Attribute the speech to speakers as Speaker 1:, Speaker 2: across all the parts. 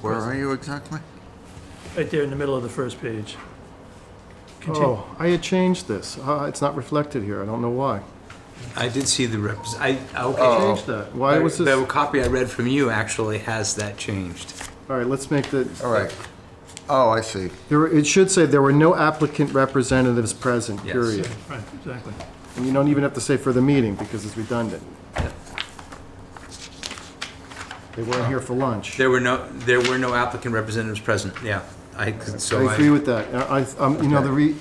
Speaker 1: Where are you exactly?
Speaker 2: Right there in the middle of the first page. Continue.
Speaker 3: Oh, I had changed this. Uh, It's not reflected here. I don't know why.
Speaker 4: I did see the reps, I,
Speaker 3: I
Speaker 4: okay.
Speaker 3: changed that. Oh. Why was this?
Speaker 4: The copy I read from you actually has that changed.
Speaker 3: All right, let's make the,
Speaker 1: All right. Oh, I see.
Speaker 3: there, were- it should say there were no applicant representatives present,
Speaker 4: Yes.
Speaker 3: period.
Speaker 2: Right, exactly.
Speaker 3: And you don't even have to say for the meeting because it's redundant. They weren't here for lunch.
Speaker 4: There were no, there were no applicant representatives present, yeah. I, so
Speaker 3: I agree
Speaker 4: I,
Speaker 3: with that. I, I- um, you know, the re,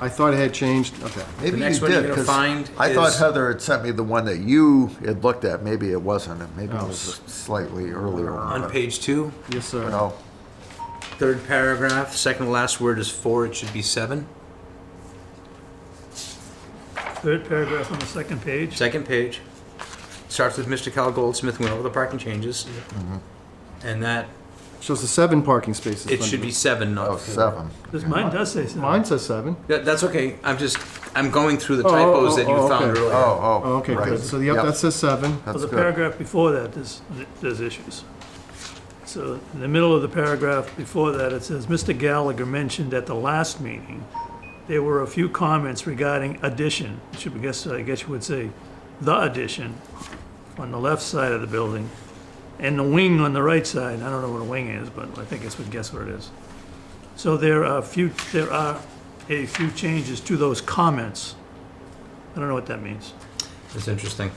Speaker 3: I thought it had changed. Okay.
Speaker 1: Maybe you
Speaker 4: next one you're
Speaker 1: did,
Speaker 4: gonna
Speaker 1: 'cause
Speaker 4: find
Speaker 1: I thought
Speaker 4: is-
Speaker 1: Heather had sent me the one that you had looked at. Maybe it wasn't, and maybe it
Speaker 3: Oh,
Speaker 1: was a slightly earlier. oh, one,
Speaker 4: on
Speaker 1: but-
Speaker 4: page two,
Speaker 3: Yes, sir.
Speaker 1: No,
Speaker 4: third paragraph, second to last word is four, it should be seven.
Speaker 2: Third paragraph on the second page.
Speaker 4: Second page, starts with Mr. Cal Goldsmith went over the parking changes.
Speaker 3: Mm-hmm.
Speaker 4: And that,
Speaker 3: Shows the seven parking spaces.
Speaker 4: it should be seven,
Speaker 1: oh,
Speaker 4: not four.
Speaker 1: seven.
Speaker 2: This, mine does say something.
Speaker 3: Mine says seven.
Speaker 4: That, that's okay, I'm just, I'm going through the
Speaker 3: Oh, oh,
Speaker 4: typos that
Speaker 3: oh,
Speaker 4: you
Speaker 3: oh,
Speaker 4: found
Speaker 3: okay.
Speaker 4: earlier.
Speaker 1: Oh,
Speaker 3: Oh,
Speaker 1: oh,
Speaker 3: okay,
Speaker 1: right.
Speaker 3: good. So, yep, that says seven.
Speaker 2: Well,
Speaker 1: That's
Speaker 2: the
Speaker 1: good.
Speaker 2: paragraph before that, there's, there's issues. So in the middle of the paragraph before that, it says, Mr. Gallagher mentioned at the last meeting, there were a few comments regarding addition, It should, I guess, I guess you would say, the addition on the left side of the building, and the wing on the right side. I don't know what a wing is, but I think it's, would guess what it is. So there are a few, there are a few changes to those comments. I don't know what that means.
Speaker 4: That's interesting.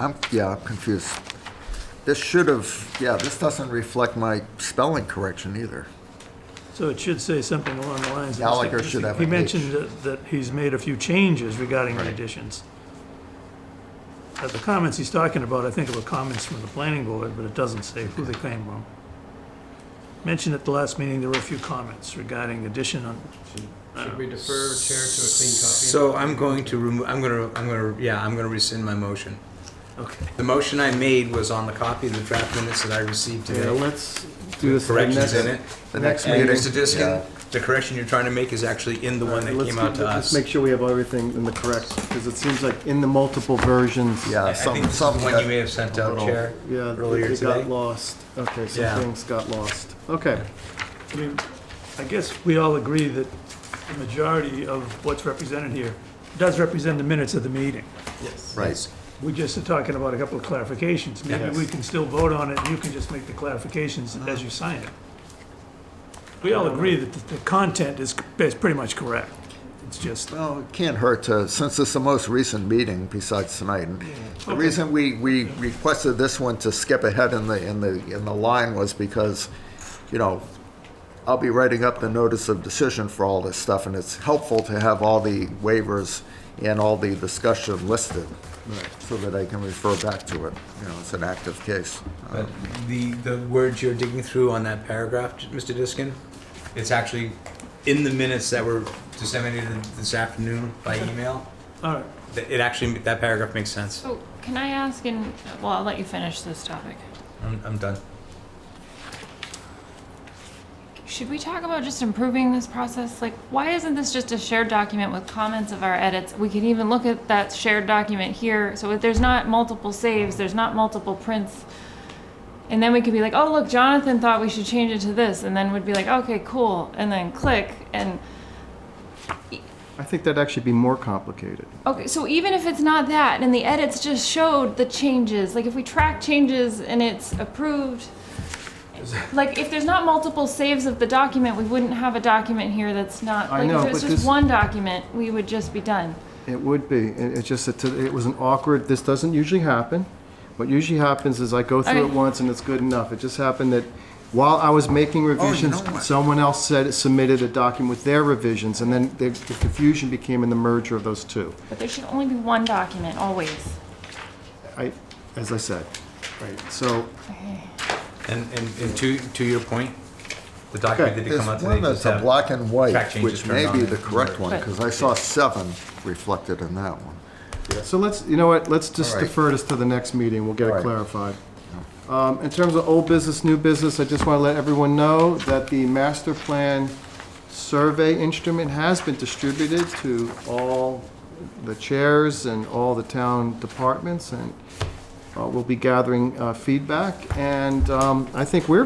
Speaker 1: I'm, yeah, I'm confused. This should have, yeah, this doesn't reflect my spelling correction either.
Speaker 2: So it should say something along the lines. of-
Speaker 1: Gallagher should have
Speaker 2: He
Speaker 1: an
Speaker 2: mentioned that- that he's made a few changes regarding the additions. But the comments he's talking about, I think, were comments from the planning board, but it doesn't say who they came from. Mentioned at the last meeting, there were a few comments regarding addition on,
Speaker 5: Should we defer chair to a clean copy?
Speaker 4: So I'm going to remove, I'm gonna, I'm gonna, yeah, I'm gonna rescind my motion.
Speaker 2: okay.
Speaker 4: The motion I made was on the copy of the draft minutes that I received
Speaker 3: Yeah,
Speaker 4: today.
Speaker 3: let's do this.
Speaker 4: Corrections in it.
Speaker 1: The next
Speaker 4: And
Speaker 1: meeting.
Speaker 4: Mr.
Speaker 1: yeah.
Speaker 4: Diskin, the correction you're trying to make is actually in the one that came out to us.
Speaker 3: Make sure we have everything in the correct, because it seems like in the multiple versions.
Speaker 1: Yeah,
Speaker 4: I
Speaker 1: some-
Speaker 4: think this is the
Speaker 1: some
Speaker 4: one
Speaker 1: got
Speaker 4: you may have sent
Speaker 1: a
Speaker 4: out,
Speaker 1: little-
Speaker 4: Chair,
Speaker 3: Yeah,
Speaker 4: earlier
Speaker 3: they got
Speaker 4: today.
Speaker 3: lost. Okay,
Speaker 4: Yeah.
Speaker 3: some things got lost. Okay,
Speaker 2: I mean, I guess we all agree that the majority of what's represented here does represent the minutes of the meeting.
Speaker 1: Right.
Speaker 2: We just are talking about a couple of clarifications. Maybe
Speaker 3: Yes.
Speaker 2: we can still vote on it, and you can just make the clarifications as you sign it. We all agree that the the content is, is pretty much correct. It's just,
Speaker 1: Well, it can't hurt to, since it's the most recent meeting besides tonight. and The reason we, we requested this one to skip ahead in the, in the, in the line was because, you know, I'll be writing up the notice of decision for all this stuff, and it's helpful to have all the waivers and all the discussion listed, so that I can refer back to it, you know, it's an active case.
Speaker 4: But The, the words you're digging through on that paragraph, Mr. Diskin, it's actually in the minutes that were disseminated this afternoon by email.
Speaker 2: all right.
Speaker 4: That- It actually, that paragraph makes sense.
Speaker 6: So can I ask, and, well, I'll let you finish this topic.
Speaker 4: I'm, I'm done.
Speaker 6: Should we talk about just improving this process? Like, why isn't this just a shared document with comments of our edits? We can even look at that shared document here, so if there's not multiple saves, there's not multiple prints. And then we could be like, oh, look, Jonathan thought we should change it to this, and then we'd be like, okay, cool, and then click, and,
Speaker 3: I think that'd actually be more complicated.
Speaker 6: okay, so even if it's not that, and the edits just showed the changes, like if we track changes and it's approved, Like, if there's not multiple saves of the document, we wouldn't have a document here that's not,
Speaker 3: I
Speaker 6: like,
Speaker 3: know,
Speaker 6: if it was
Speaker 3: but
Speaker 6: just
Speaker 3: this-
Speaker 6: one document, we would just be done.
Speaker 3: It would be, it, it's just, that it was an awkward, this doesn't usually happen. What usually happens is I go through it
Speaker 6: Okay.
Speaker 3: once and it's good enough. It just happened that while I was
Speaker 4: Oh,
Speaker 3: making revisions,
Speaker 1: what?
Speaker 3: someone else said, submitted a document with their revisions, and then the the confusion became in the merger of those two.
Speaker 6: But there should only be one document, always.
Speaker 3: I, as I said, right, so,
Speaker 4: And, and, and to, to your point, the document that did
Speaker 1: There's
Speaker 4: come out today
Speaker 1: one
Speaker 4: just
Speaker 1: that's a
Speaker 4: had.
Speaker 1: black and
Speaker 4: track
Speaker 1: white,
Speaker 4: changes
Speaker 1: which may
Speaker 4: turned
Speaker 1: be
Speaker 4: on
Speaker 1: the
Speaker 4: it.
Speaker 1: correct one,
Speaker 6: But-
Speaker 1: because I saw seven reflected in that one.
Speaker 3: so let's, you know what, let's just
Speaker 1: All right.
Speaker 3: defer this to the next meeting, we'll get
Speaker 1: All
Speaker 3: it
Speaker 1: right.
Speaker 3: clarified. Um, in terms of old business, new business, I just want to let everyone know that the master plan survey instrument has been distributed to all the chairs and all the town departments, and uh, we'll be gathering uh, feedback, and um, I think we're